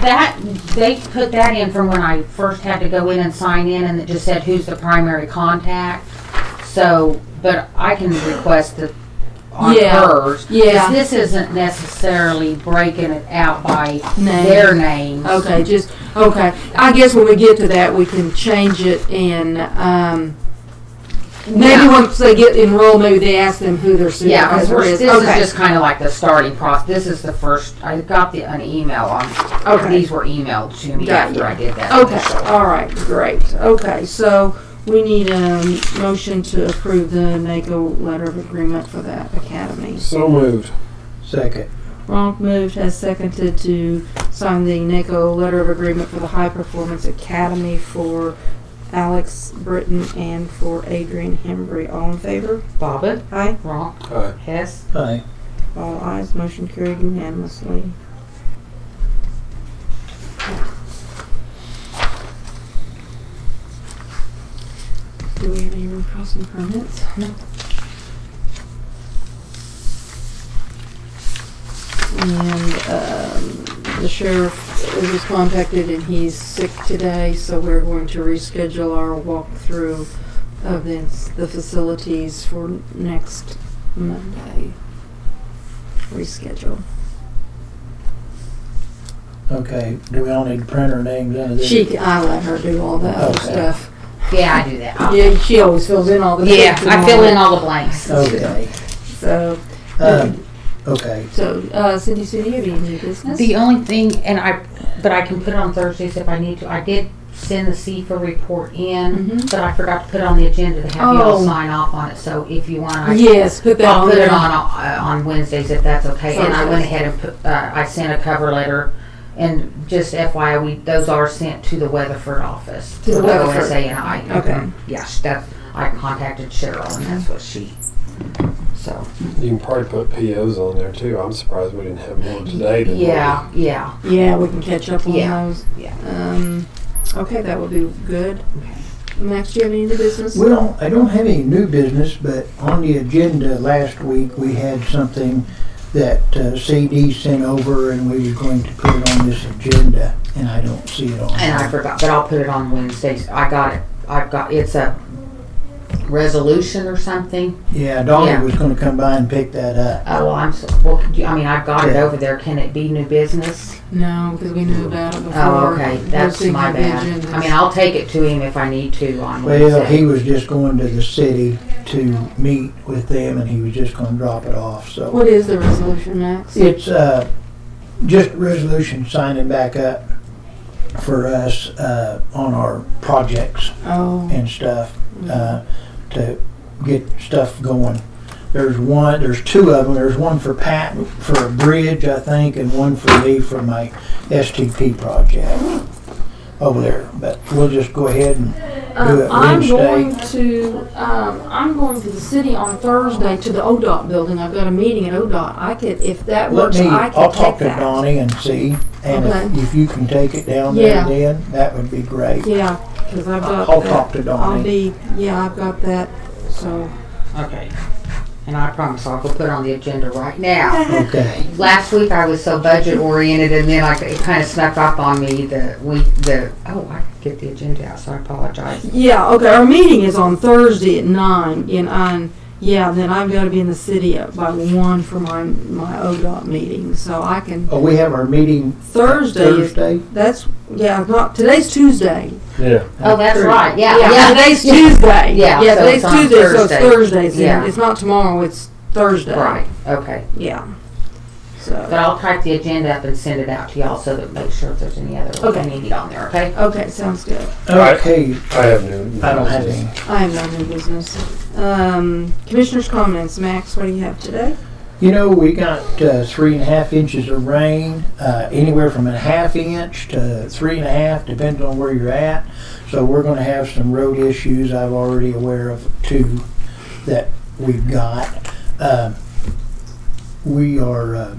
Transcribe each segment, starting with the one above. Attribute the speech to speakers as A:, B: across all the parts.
A: That, they put that in from when I first had to go in and sign in, and it just said who's the primary contact. So, but I can request that on
B: Yeah,
A: hers. 'cause
B: yeah.
A: This isn't necessarily breaking it out by
B: Name.
A: their names.
B: Okay, just, okay. I guess when we get to that, we can change it and, um, maybe
A: Yeah.
B: once they get enrolled, maybe they ask them who their
A: Yeah, 'cause
B: supervisor
A: we're-
B: is.
A: this is
B: Okay.
A: just kind of like the starting process. This is the first, I got the, an email on,
B: Okay.
A: these were emailed to me
B: Got
A: after
B: you.
A: I did that.
B: Okay,
A: initial.
B: all right, great. Okay, so we need a motion to approve the NACO letter of agreement for that academy.
C: So moved.
D: Second.
B: Ronk moved, has seconded to sign the NACO letter of agreement for the High Performance Academy for Alex Britton and for Adrian Hembry. All in favor?
A: Bobbit,
B: Aye.
A: Ronk,
C: Aye.
A: Hess,
D: Aye.
B: All ayes, motion carried unanimously. Do we have any road crossing permits? No. And, um, the sheriff was contacted and he's sick today, so we're going to reschedule our walkthrough of the, the facilities for next Monday reschedule.
D: Okay, do we all need to print our names into this?
B: She, I let her do all that other
D: Okay.
B: stuff.
A: yeah, I do that.
B: Yeah, she always fills in all the.
A: Ah. Yeah,
B: blanks and
A: I
B: all
A: fill
B: that.
A: in all the blanks.
D: Okay,
B: So,
D: um, okay,
B: so, uh, Cindy, Cindy, have you any business?
A: The only thing, and I, but I can put it on Thursdays if I need to. I did send the CFA report in,
B: Mhm.
A: but I forgot to put it on the agenda to have you all
B: Oh.
A: sign off on it. So if you want, I
B: Yes, put that
A: I'll
B: on
A: put it
B: there.
A: on, uh, on Wednesdays if that's okay. And I went
B: Thursdays.
A: ahead and put, uh, I sent a cover letter. And just FYI, we, those are sent to the Weatherford office.
B: To the
A: for
B: Weatherford.
A: OSA and I. Mm-hmm.
B: Okay.
A: Yes, that, I contacted Cheryl and that's what she, so,
C: You can probably put POs on there too. I'm surprised we didn't have more today. than we-
A: yeah, yeah.
B: Yeah, we can catch up on
A: Yeah,
B: those.
A: yeah.
B: Um, okay, that would be good. Max, do you have any other business?
D: we don't, I don't have any new business, but on the agenda last week, we had something that uh, CD sent over and we were going to put it on this agenda, and I don't see it on.
A: And I forgot, but I'll put it on Wednesdays. I got it. I've got, it's a resolution or something.
D: Yeah, Dolly
A: Yeah.
D: was gonna come by and pick that up.
A: Oh, I'm, so- well, do you- I mean, I've got it over there. Can it be new business?
B: No, because we knew about it before.
A: Oh, okay, that's
B: posting
A: my
B: of the
A: bad.
B: agendas.
A: I mean, I'll take it to him if I need to on
D: Well, he
A: Wednesday.
D: was just going to the city to meet with them and he was just gonna drop it off, so.
B: What is the resolution, Max?
D: It's uh, just resolution signing back up for us uh, on our projects
B: Oh,
D: and stuff uh, to get stuff going. There's one, there's two of them. There's one for Pat, for a bridge, I think, and one for me for my STP project over there. But we'll just go ahead and do
B: Um,
D: it
B: I'm
D: Wednesday.
B: going to, um, I'm going to the city on Thursday to the ODOT building. I've got a meeting at ODOT. I could, if that
D: Let
B: works,
D: me,
B: I
D: I'll
B: could take
D: talk to
B: that.
D: Donnie and see, and
B: Okay.
D: if- if you can take it down there
B: Yeah.
D: then, that would be great.
B: Yeah, cause I've got
D: I'll talk
B: that.
D: to
B: I'll
D: Donnie.
B: be, yeah, I've got that, so.
A: Okay. And I promise I'll go put it on the agenda right now.
D: Okay.
A: Last week I was so budget oriented and then like it kind of snuck up on me the week, the, oh, I could get the agenda out, so I apologize.
B: Yeah, okay, our meeting is on Thursday at nine and on, yeah, then I've gotta be in the city at- by one for my, my ODOT meeting, so I can.
D: Oh, we have our meeting
B: Thursday is,
D: Thursday?
B: that's, yeah, not, today's Tuesday.
C: Yeah.
A: Oh, that's
D: Thursday.
A: right, yeah,
B: Yeah,
A: yeah.
B: today's Tuesday.
A: Yeah,
B: yeah,
A: so
B: today's
A: it's on
B: Tuesday, so it's
A: Thursday.
B: Thursday's.
A: Yeah.
B: Yeah, it's not tomorrow. It's Thursday.
A: Right, okay.
B: Yeah.
A: But
B: So
A: I'll type the agenda up and send it out to y'all so that make sure if there's any other
B: Okay.
A: we need on there, okay?
B: okay, sounds good.
C: Alright.
D: Okay,
C: I have new.
D: I don't have any.
B: I have no new business. Um, commissioners' comments. Max, what do you have today?
D: You know, we got uh, three and a half inches of rain, uh, anywhere from a half inch to three and a half, depending on where you're at. So we're going to have some road issues. I'm already aware of two that we've got. Um, we are uh,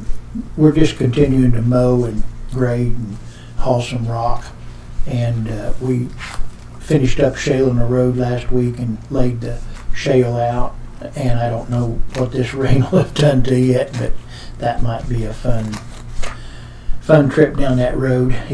D: we're just continuing to mow and grade and haul some rock, and uh, we finished up shaling the road last week and laid the shale out and I don't know what this rain will have done to yet, but that might be a fun, fun trip down that road.